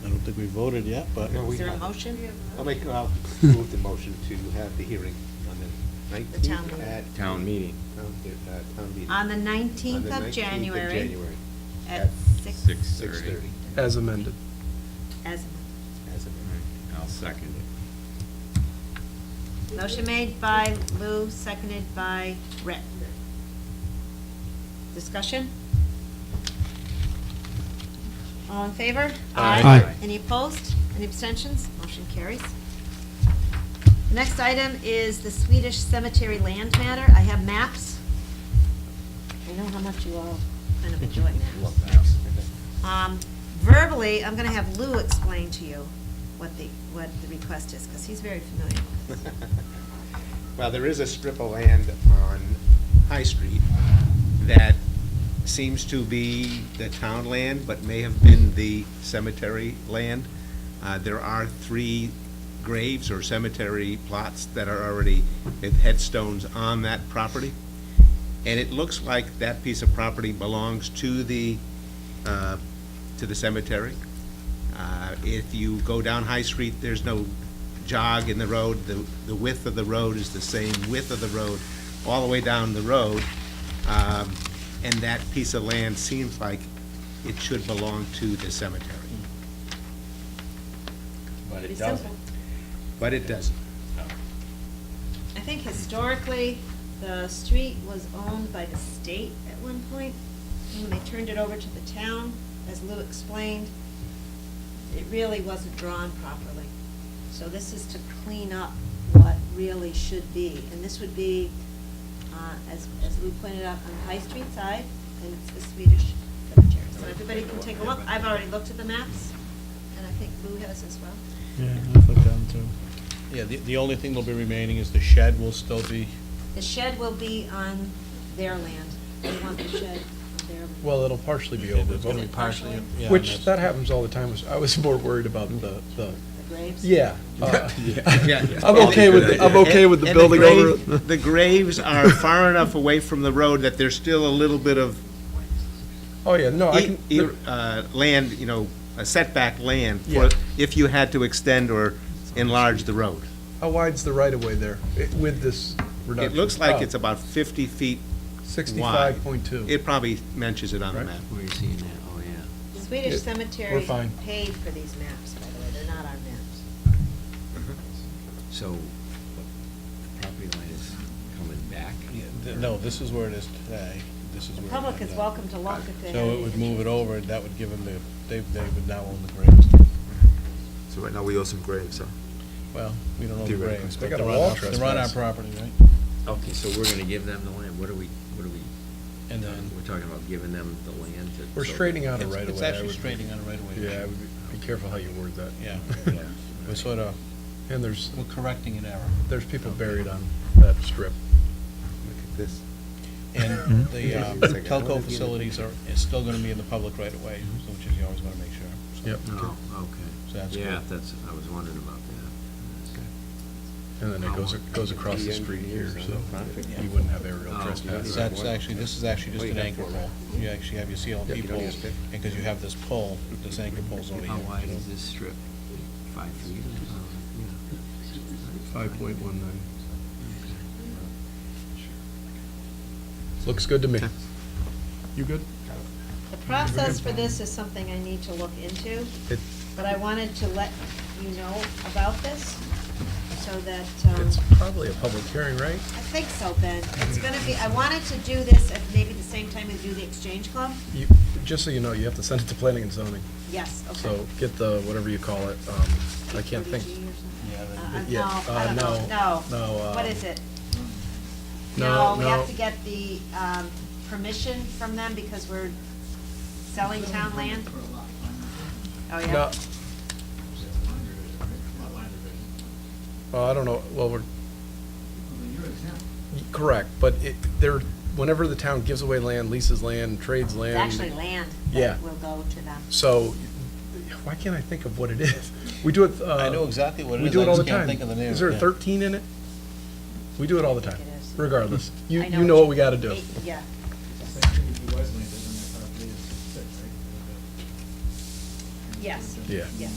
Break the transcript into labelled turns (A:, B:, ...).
A: think we voted yet, but
B: No, we
C: Is there a
B: have-
C: motion?
B: I'll make, I'll move the motion to have the hearing on the
C: The town
B: nineteenth
C: meeting.
B: at.
D: Town meeting.
B: Town, uh, town meeting.
C: On the
B: On
C: 19th of January at
B: at
C: 6,
B: Six thirty.
E: As amended.
C: as,
B: As of
D: I'll second it.
C: motion made by Lou, seconded by Rick. Discussion? All in favor?
D: Aye. Aye.
C: Any opposed? Any abstentions? Motion carries. The Next item is the Swedish cemetery land matter. I have maps. I know how much you all kind of enjoy maps. Um, Verbally, I'm going to have Lou explain to you what the, what the request is, because he's very familiar with this.
B: Well, there is a strip of land on High Street that seems to be the town land, but may have been the cemetery land. Uh, There are three graves or cemetery plots that are already, with headstones on that property. And it looks like that piece of property belongs to the, uh, to the cemetery. Uh, If you go down High Street, there's no jog in the road. The the width of the road is the same width of the road all the way down the road. Um, And that piece of land seems like it should belong to the cemetery,
D: But
C: Pretty
D: it
C: simple.
D: doesn't.
B: but it doesn't.
C: I think historically, the street was owned by the state at one point, and when they turned it over to the town, as Lou explained, it really wasn't drawn properly. So this is to clean up what really should be, and this would be, uh, as, as Lou pointed out, on the High Street side, and it's the Swedish cemetery. So everybody can take a look, I've already looked at the maps, and I think Lou has as well.
A: Yeah, I've looked down too. Yeah, the, the only thing that'll be remaining is the shed will still be,
C: The shed will be on their land. They want the shed on their.
E: Well, it'll partially be
A: Yeah,
E: over,
A: it's gonna be
E: but,
A: partially, yeah. and
E: which, that
A: that's-
E: happens all the time, was- I was more worried about the, the,
C: The graves?
E: yeah. uh,
B: Yeah.
E: I'm okay with, the- I'm okay with the
B: And- and
E: building over.
B: grave- The graves are far enough away from the road that there's still a little bit of
E: Oh, yeah, no, I
B: E-
E: can,
B: e-
E: there-
B: uh, land, you know, a setback land for,
E: Yeah.
B: if you had to extend or enlarge the road.
E: how wide's the right of way there i- with this
B: It
E: reduction? Oh,
B: looks like it's about 50 feet wide.
E: Sixty-five point two.
B: It probably mentions it on the
E: Right.
B: map.
D: Where you seeing that? Oh, yeah.
C: The Swedish
E: Yeah, we're
C: cemetery
E: fine.
C: paid for these maps, by the way, they're not our maps.
D: So the property line is coming back?
A: yeah, th- No, this is where it is today, this is
C: The
A: where. it
C: public is
A: ended up.
C: welcome to look if they have.
A: So it
C: any
A: would move it
C: interest.
A: over, and that would give them the, they, they would now own the graves.
F: So right now, we owe some graves, huh?
A: Well, we don't own the
F: Theoretically.
A: graves,
E: They
A: but
E: got
A: they're
E: a
A: on,
E: wall
A: our- they're on our
E: trespass.
A: property, right?
D: Okay, so we're gonna give them the land. What are we, what are we?
A: And then-
D: We're talking about giving them the land to.
E: We're
D: so-
E: straightening out a
A: It's-
E: right of way.
A: It's actually straightening on a right away.
E: Yeah, I would be- be careful how you word that.
A: Yeah.
D: Yeah.
A: We're sort of,
E: And there's,
A: we're correcting an error.
E: there's people buried on that strip.
B: Look at this.
A: And
E: Mm-hmm.
A: the uh,
B: It's like, I wonder
A: telco
B: if you-
A: facilities are, is still gonna be in the public right away, so which is you always wanna make sure. so.
E: Yep.
D: Oh,
A: So that's
D: okay. Yeah,
A: good.
D: that's, I was wondering about that.
E: And
A: Oh,
E: then it goes, it goes across the street here, so you wouldn't have aerial
D: Oh,
E: trespass.
A: That's actually, this is actually just
B: Well, you
A: an
B: have
A: anchor
B: four.
A: pole. You actually have your
B: you
A: CLP
B: don't need a
A: poles,
B: stick.
A: and because you have this pole, this anchor pole's over here.
D: How wide
A: you know.
D: is this strip? Five feet? Oh,
E: Five point one nine. Looks good to me. You good?
C: The process for this is something I need to look into,
E: It-
C: but I wanted to let you know about this, so that, um,
E: It's probably a public hearing, right?
C: I think so, Ben. It's gonna be, I wanted to do this at maybe the same time we do the Exchange Club.
E: You, just so you know, you have to send it to planning and zoning.
C: Yes, okay.
E: So get the, whatever you call it, um, I can't think.
C: PRDG or something?
A: Yeah,
C: Uh,
A: that-
C: uh,
E: yeah,
C: No,
E: uh,
C: I don't know, no.
E: no, no, uh,
C: What is it?
E: No,
C: we have
E: no.
C: to get the um, permission from them because we're selling town land? Oh,
E: No.
C: yeah.
E: Well, I don't know, well, we're. Y- Correct, but it, there, whenever the town gives away land, leases land, trades
C: It's
E: land.
C: actually land
E: Yeah.
C: that will go to them.
E: So, why can't I think of what it is? We do it, uh.
A: I know exactly what it
E: We
A: is,
E: do
A: I
E: it all the
A: just can't
E: time.
A: think of the name
E: Is
A: of
E: there a
A: it.
E: thirteen in it? We do it all the time,
C: think it is.
E: regardless. You,
C: I
E: you know what we gotta do.
C: Eight- Yeah. Yes.
E: Yeah.
C: Yes.